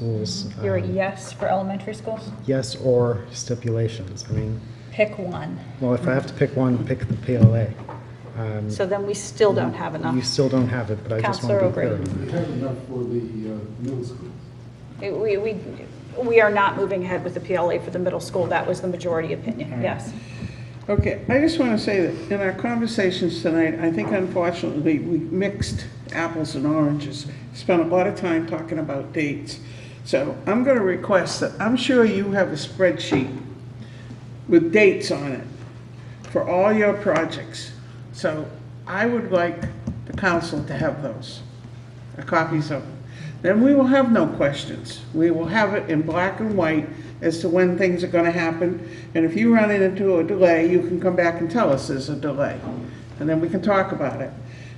schools. You're a E um, yes for elementary schools? Yes or stipulations. I mean, Pick one. well, if I have to pick one, pick the PLA. Um, So then we still don't have You enough. still don't have it, but I just want to Counselor be clear. on O'Grady. We have enough for the uh, middle school. It- We, we, we are not moving ahead with the PLA for the middle school. That was the majority opinion, yes. Okay, I just want to say that in our conversations tonight, I think unfortunately, we mixed apples and oranges. Spent a lot of time talking about dates. So I'm going to request that, I'm sure you have a spreadsheet with dates on it for all your projects. So I would like the council to have those, uh, copies of them. Then we will have no questions. We will have it in black and white as to when things are gonna happen. And if you run into a delay, you can come back and tell us there's a delay, and then we can talk about it.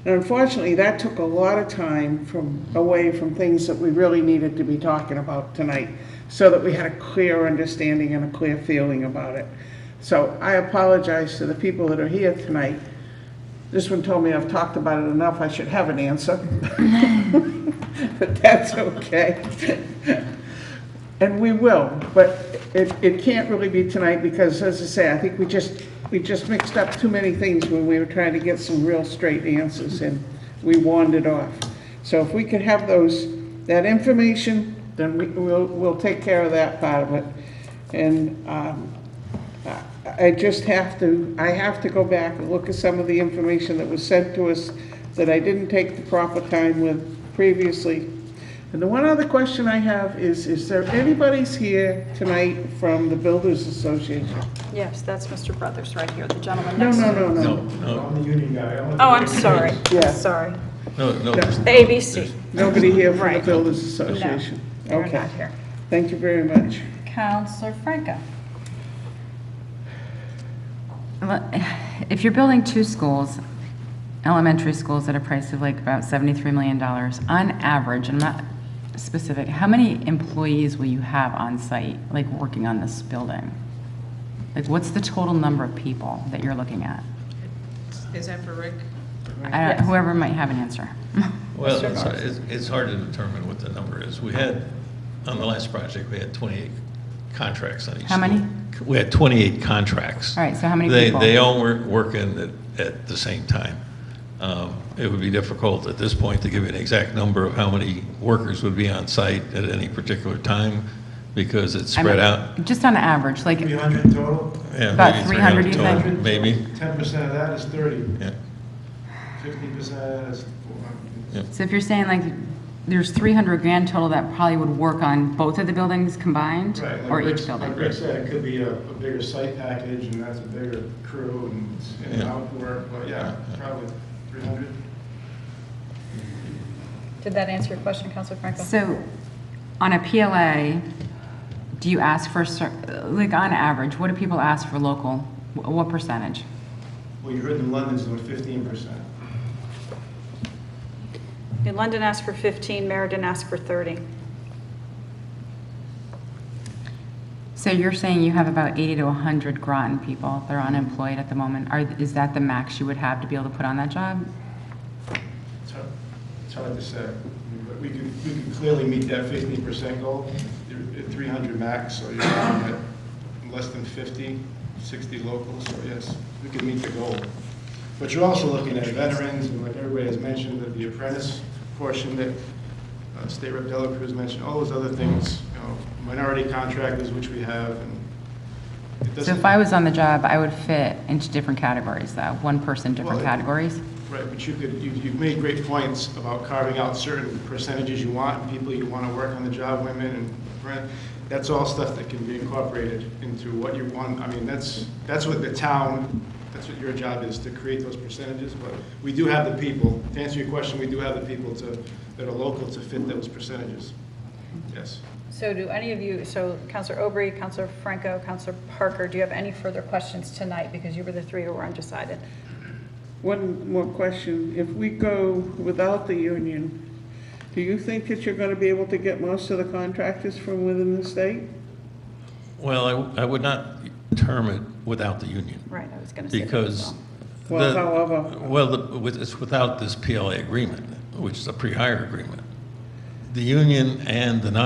And unfortunately, that took a lot of time from, away from things that we really needed to be talking about tonight, so that we had a clear understanding and a clear feeling about it. So I apologize to the people that are here tonight. This one told me I've talked about it enough, I should have an answer. But that's okay. And we will, but it, it can't really be tonight because, as I say, I think we just, we just mixed up too many things when we were trying to get some real straight answers and we wandered off. So if we could have those, that information, then we, we'll, we'll take care of that part of it. And, um, I- I just have to, I have to go back and look at some of the information that was sent to us that I didn't take the proper time with previously. And the one other question I have is, is there anybody's here tonight from the Builders Association? Yes, that's Mr. Brothers right here, the gentleman No, next to no, him. no, No, no. no, I'm the union guy. I'm Oh, I'm sorry. Yeah. Sorry. no, no. there's- The ABC. Nobody here from the Right. Builders No, Association? they're Okay, not here. thank you very much. Counselor Franco. Well, If you're building two schools, elementary schools at a price of like about $73 million, on average, I'm not specific, how many employees will you have on site, like working on this building? Like, what's the total number of people that you're looking at? Is that for Rick? I don't- Whoever might have an answer. Well, it's, it's- it's hard to determine what the number is. We had, on the last project, we had 28 contracts on each. How many? school. We had 28 contracts. All right, so how many They, people? they all weren't working at, at the same time. Um, It would be difficult at this point to give you an exact number of how many workers would be on site at any particular time because it's I'm- spread out. Just on average, like, 300 total, Yeah, About maybe 300, you total, think? Maybe, 10% of that is 30, yeah, 50% of that is 400. so if you're saying like, there's 300 grand total that probably would work on both of the buildings combined? Right, like Or Rick- each building? Like Rick said, it could be a a bigger site package, and that's a bigger crew and it's in and Yeah. out work, but yeah, probably 300. Did that answer your question, Counselor Franco? So, on a PLA, do you ask for, cer- like, on average, what do people ask for local? Wh- What percentage? Well, you heard in London's doing 15%. In London asked for 15, Meriden asked for 30. So you're saying you have about 80 to 100 Groton people that are unemployed at the moment. Are, is that the max you would have to be able to put on that job? It's hard- It's hard to say, but we could, we could clearly meet that 15% goal, You're at 300 max, so you're looking at less than 50, 60 locals, so yes, we could meet the goal. But you're also looking at veterans, and like everybody has mentioned, that the apprentice portion that uh, State Rep. Delacruz mentioned, all those other things, you know, minority contractors, which we have, and it So doesn't... if I was on the job, I would fit into different categories, though. One person, different Well, it- categories. Right, but you could, you- you've made great points about carving out certain percentages you want, people you want to work on the job, women and rent. That's all stuff that can be incorporated into what you want. I mean, that's, that's what the town, that's what your job is, to create those percentages. But we do have the people, to answer your question, we do have the people to, that are local to fit those percentages. Yes. So do any of you, so Counselor Aubrey, Counselor Franco, Counselor Parker, do you have any further questions tonight? Because you were the three who were undecided. One more question. If we go without the union, do you think that you're gonna be able to get most of the contractors from within the state? well, I, I would not term it without the union. Right, I was going to say that as Because. well. Well, the- however- Well, the- with- it's without this PLA agreement, which is a pre-hire agreement. The union and the non